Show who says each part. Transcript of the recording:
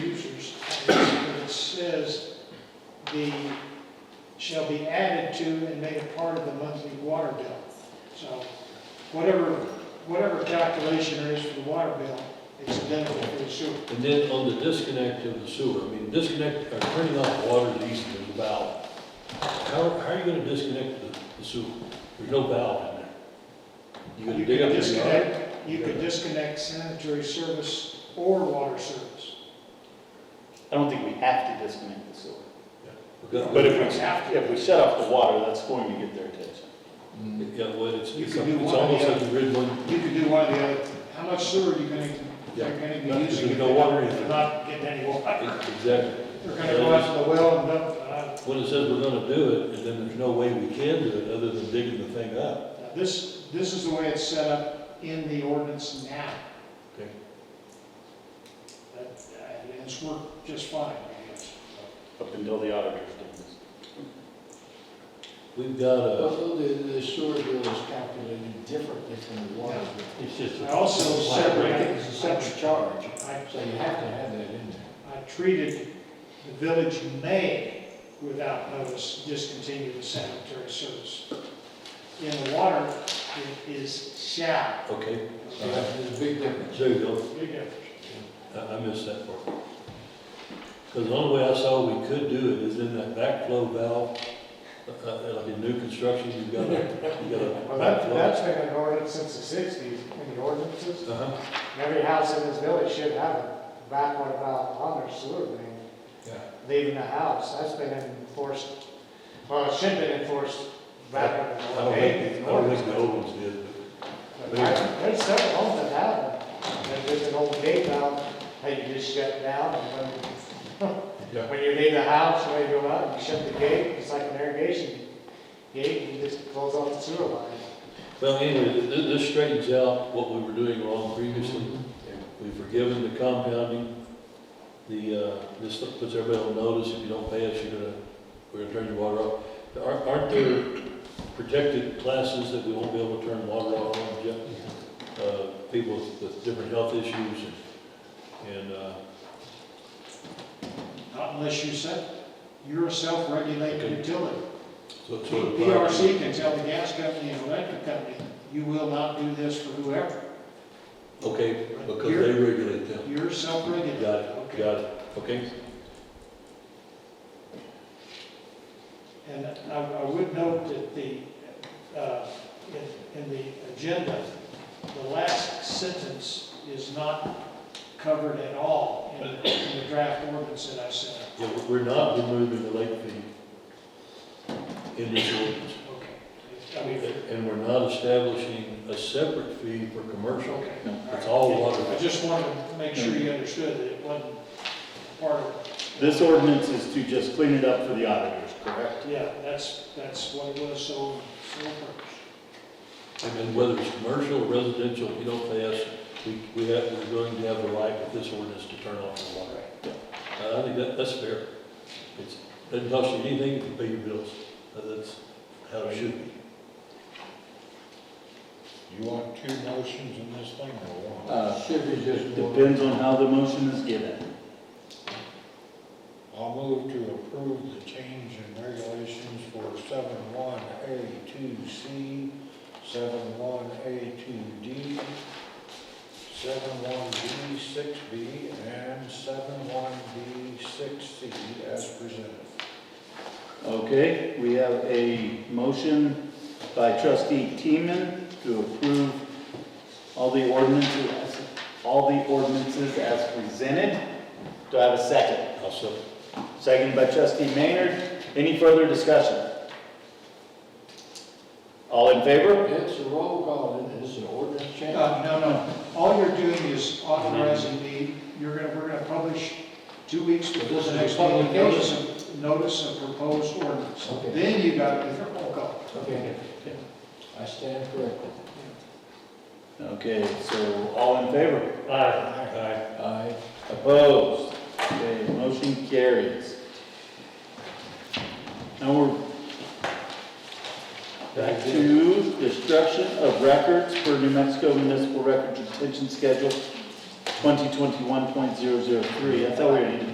Speaker 1: the, shall be added to and made a part of the monthly water bill. So whatever, whatever calculation there is for the water bill, it's identical for the sewer.
Speaker 2: And then on the disconnect of the sewer, I mean, disconnect, or turning off water to east of the valve. How, how are you gonna disconnect the, the sewer? There's no valve in there. You gonna
Speaker 1: You
Speaker 2: dig up
Speaker 1: could
Speaker 2: your yard?
Speaker 1: disconnect, you could disconnect sanitary service or water service.
Speaker 3: I don't think we have to disconnect the sewer.
Speaker 2: We've got-
Speaker 3: But if we, if we shut off the water, that's going to get their attention.
Speaker 2: Yeah, well, it's,
Speaker 1: You
Speaker 2: it's
Speaker 1: could do
Speaker 2: it's
Speaker 1: one or
Speaker 2: almost
Speaker 1: the
Speaker 2: like the grid one,
Speaker 1: You could do one or the other. How much sewer are you gonna,
Speaker 2: Yeah.
Speaker 1: they're gonna
Speaker 2: No,
Speaker 1: be using?
Speaker 2: there's
Speaker 1: if
Speaker 2: no
Speaker 1: they
Speaker 2: water
Speaker 1: don't-
Speaker 2: in it.
Speaker 1: They're not getting any water.
Speaker 2: exactly.
Speaker 1: They're gonna go out to the well and dump, uh,
Speaker 2: When it says we're gonna do it, and then there's no way we can do it other than digging the thing up.
Speaker 1: Now, This, this is the way it's set up in the ordinance now.
Speaker 2: Okay.
Speaker 1: That- And it's worked just fine, I guess.
Speaker 3: Up until the auditors do this.
Speaker 2: We've got a,
Speaker 4: Although the, the sewer bill is calculated differently from the water bill.
Speaker 2: it's just,
Speaker 1: I also separated,
Speaker 4: It's a separate charge,
Speaker 1: I,
Speaker 4: so you have to have that in there.
Speaker 1: I treated the village may, without notice, discontinue the sanitary service. In the water, it is shall.
Speaker 2: okay,
Speaker 4: So There's a big difference.
Speaker 2: there you go.
Speaker 1: Big difference.
Speaker 2: I, I missed that part. Because the only way I saw we could do it is in that backflow valve, uh, uh, like in new construction, you've got a, you've got a
Speaker 5: Well, that,
Speaker 2: backflow.
Speaker 5: that's been an ordinance since the sixties, in the ordinances.
Speaker 2: Uh-huh,
Speaker 5: Every house in this village should have a backwater valve on their sewer main,
Speaker 2: yeah.
Speaker 5: leaving the house. That's been enforced, well, it should have been enforced back
Speaker 2: I
Speaker 5: in the
Speaker 2: don't
Speaker 5: eighties.
Speaker 2: think, I don't think the old ones did,
Speaker 5: There's several homes that have them. And There's an old gate valve that you just shut down and
Speaker 2: Yeah.
Speaker 5: when, when you leave the house, when you go out, you shut the gate. It's like an irrigation gate and you just close off the sewer line.
Speaker 2: but, well, anyway, th- th- this straightens out what we were doing wrong previously.
Speaker 1: Mm-hmm.
Speaker 2: We've forgiven the compounding, the, uh, this puts everybody on notice, if you don't pay us, you're gonna, we're gonna turn your water off. Aren't, aren't there protected classes that we won't be able to turn water off on, Jeff?
Speaker 1: Mm-hmm.
Speaker 2: uh, people with- with different health issues and, and, uh,
Speaker 1: Not unless you said, you're a self-regulated utility.
Speaker 2: so, so. the fire-
Speaker 1: PRC can tell the gas company and electric company, you will not do this for whoever.
Speaker 2: Okay, because they regulate them.
Speaker 1: You're self-regulated.
Speaker 2: Got it,
Speaker 1: Okay.
Speaker 2: got it, okay?
Speaker 1: And I, I would note that the, uh, in, in the agenda, the last sentence is not covered at all in the, in the draft ordinance that I sent. out.
Speaker 2: Yeah, we- we're not removing the late fee in this ordinance.
Speaker 1: Okay. I mean,
Speaker 2: And we're not establishing a separate fee for commercial.
Speaker 1: okay.
Speaker 3: No.
Speaker 2: It's all water.
Speaker 1: I just wanted to make sure you understood that it wasn't part of.
Speaker 3: This ordinance is to just clean it up for the auditors, correct?
Speaker 1: Yeah, that's, that's what it was, so, so first.
Speaker 2: And then whether it's commercial, or residential, if you don't pay us, we, we have, we're going to have the right with this ordinance to turn off the water. Uh, I think that, that's fair. It's, doesn't cost you anything if you pay your bills. Uh, That's how it should be.
Speaker 6: You want two motions in this thing or one?
Speaker 3: Uh,
Speaker 4: Should be just one.
Speaker 3: Depends on how the motion is given.
Speaker 6: I'll move to approve the change in regulations for seven one A two C, seven one A two D, seven one B six B, and seven one B six C as presented.
Speaker 3: Okay, we have a motion by trustee Teeman to approve all the ordinances, all the ordinances as presented. Do I have a second?
Speaker 2: I'll second.
Speaker 3: Second by trustee Maynard. Any further discussion? All in favor?
Speaker 4: It's a roll call, and it's an ordinance change.
Speaker 1: Uh, No, no, all you're doing is authorizing me, you're gonna, we're gonna publish two weeks before
Speaker 4: This
Speaker 1: the
Speaker 4: is
Speaker 1: next
Speaker 4: a
Speaker 1: meeting, notice
Speaker 4: publication.
Speaker 1: of, notice of proposed ordinance.
Speaker 4: Okay.
Speaker 1: Then you got oh, to do the roll call.
Speaker 4: Okay. I stand corrected.
Speaker 3: Okay, so all in favor?
Speaker 6: Aye.
Speaker 4: I,
Speaker 3: Opposed? Okay, motion carries. Now we're back to destruction of records for New Mexico Municipal Record Retention Schedule 2021.003. I thought we already did